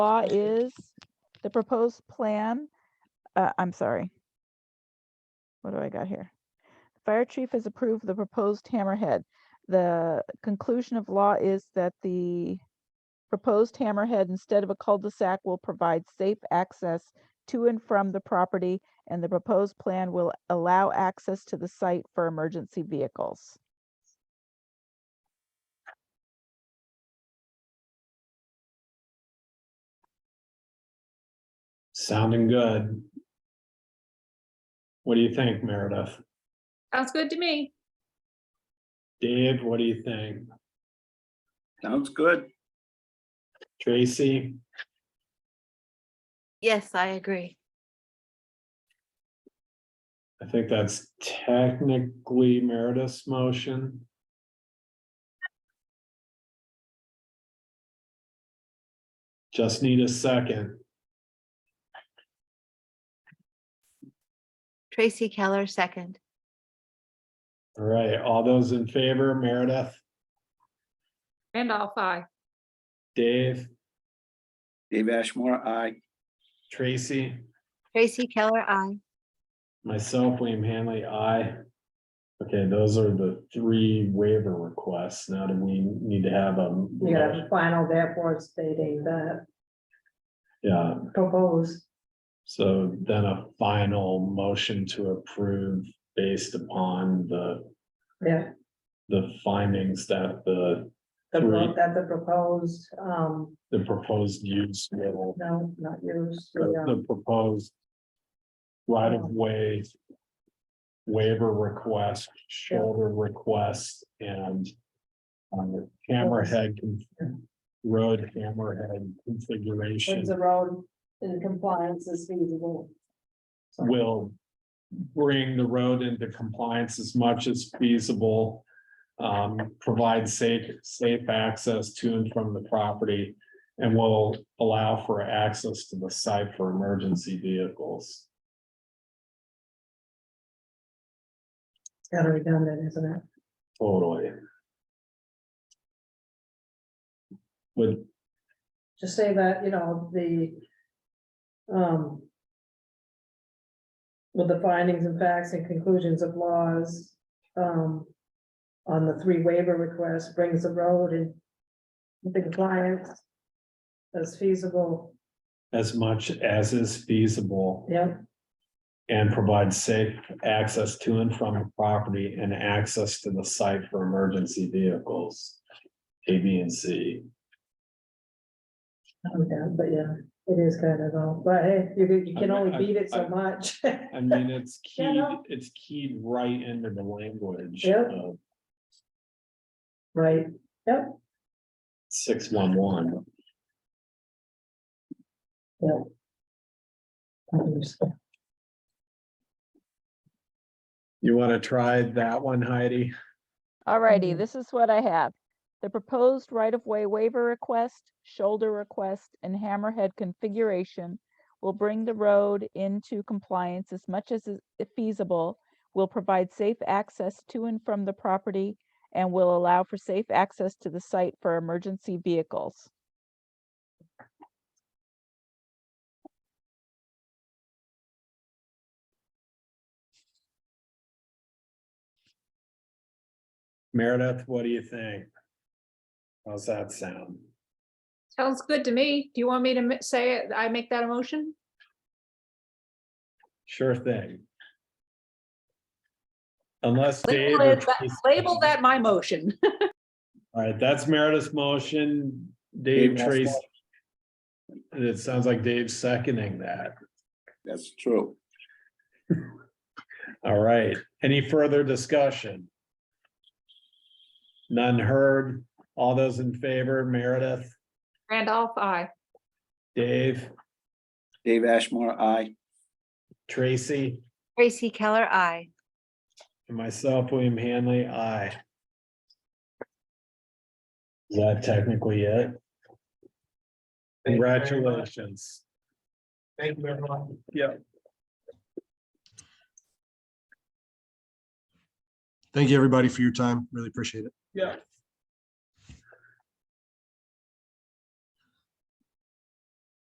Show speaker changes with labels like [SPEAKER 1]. [SPEAKER 1] law is the proposed plan, uh, I'm sorry. What do I got here? Fire chief has approved the proposed hammerhead. The conclusion of law is that the proposed hammerhead instead of a cul-de-sac will provide safe access to and from the property and the proposed plan will allow access to the site for emergency vehicles.
[SPEAKER 2] Sounding good. What do you think, Meredith?
[SPEAKER 3] Sounds good to me.
[SPEAKER 2] Dave, what do you think?
[SPEAKER 4] Sounds good.
[SPEAKER 2] Tracy,
[SPEAKER 5] Yes, I agree.
[SPEAKER 2] I think that's technically Meredith's motion. Just need a second.
[SPEAKER 5] Tracy Keller, second.
[SPEAKER 2] All right, all those in favor, Meredith,
[SPEAKER 3] And all five.
[SPEAKER 2] Dave,
[SPEAKER 4] Dave Ashmore, aye.
[SPEAKER 2] Tracy,
[SPEAKER 5] Tracy Keller, I.
[SPEAKER 2] myself, William Hanley, I. Okay, those are the three waiver requests. Now do we need to have a?
[SPEAKER 6] You have a final therefore stating the
[SPEAKER 2] Yeah,
[SPEAKER 6] proposed,
[SPEAKER 2] so then a final motion to approve based upon the,
[SPEAKER 6] yeah,
[SPEAKER 2] the findings that the,
[SPEAKER 6] the, pro-
[SPEAKER 2] Right.
[SPEAKER 6] that the proposed, um,
[SPEAKER 2] the proposed use will,
[SPEAKER 6] no, not used, the, um,
[SPEAKER 2] the proposed right of way waiver request, shoulder request, and um, hammerhead, con- road hammerhead configuration.
[SPEAKER 6] is the road in compliance is feasible. So,
[SPEAKER 2] will bring the road into compliance as much as feasible. Um, provide safe, safe access to and from the property and will allow for access to the site for emergency vehicles.
[SPEAKER 6] It's kind of redundant, isn't it?
[SPEAKER 2] Totally. But
[SPEAKER 6] Just say that, you know, the, um, with the findings and facts and conclusions of laws, um, on the three waiver requests brings the road in the compliance as feasible,
[SPEAKER 2] as much as is feasible
[SPEAKER 6] yeah,
[SPEAKER 2] and provide safe access to and from the property and access to the site for emergency vehicles. A, B, and C.
[SPEAKER 6] okay, but yeah, it is kind of, all. but hey, you can, you can
[SPEAKER 2] I-
[SPEAKER 6] only
[SPEAKER 2] I-
[SPEAKER 6] beat it
[SPEAKER 2] I-
[SPEAKER 6] so much.
[SPEAKER 2] I mean, it's
[SPEAKER 6] Yeah,
[SPEAKER 2] keyed,
[SPEAKER 6] no.
[SPEAKER 2] it's keyed right into the language
[SPEAKER 6] Yeah.
[SPEAKER 2] of
[SPEAKER 6] Right, yep,
[SPEAKER 2] six one one.
[SPEAKER 6] I understand.
[SPEAKER 2] You wanna try that one, Heidi?
[SPEAKER 1] Alrighty,
[SPEAKER 6] Mhm.
[SPEAKER 1] this is what I have. The proposed right-of-way waiver request, shoulder request, and hammerhead configuration will bring the road into compliance as much as is feasible, will provide safe access to and from the property, and will allow for safe access to the site for emergency vehicles.
[SPEAKER 2] Meredith, what do you think? How's that sound?
[SPEAKER 3] Sounds good to me. Do you want me to mi- say it? I make that a motion?
[SPEAKER 2] Sure thing. Unless Dave.
[SPEAKER 3] Label
[SPEAKER 2] or
[SPEAKER 3] it that-
[SPEAKER 2] Tracy-
[SPEAKER 3] label that my motion.
[SPEAKER 2] All right, that's Meredith's motion, Dave
[SPEAKER 4] Dave, that's
[SPEAKER 2] Tracy. And it sounds like Dave's seconding that.
[SPEAKER 4] That's true.
[SPEAKER 2] All right, any further discussion? None heard. All those in favor, Meredith,
[SPEAKER 3] Randolph, I.
[SPEAKER 2] Dave,
[SPEAKER 4] Dave Ashmore, aye.
[SPEAKER 2] Tracy,
[SPEAKER 5] Tracy Keller, I.
[SPEAKER 2] and myself, William Hanley, aye. Is that technically it?
[SPEAKER 7] Thank you very much.
[SPEAKER 2] Congratulations.
[SPEAKER 7] Thank you, everyone.
[SPEAKER 2] Yeah.
[SPEAKER 8] Thank you, everybody, for your time. Really appreciate it.
[SPEAKER 2] Yeah,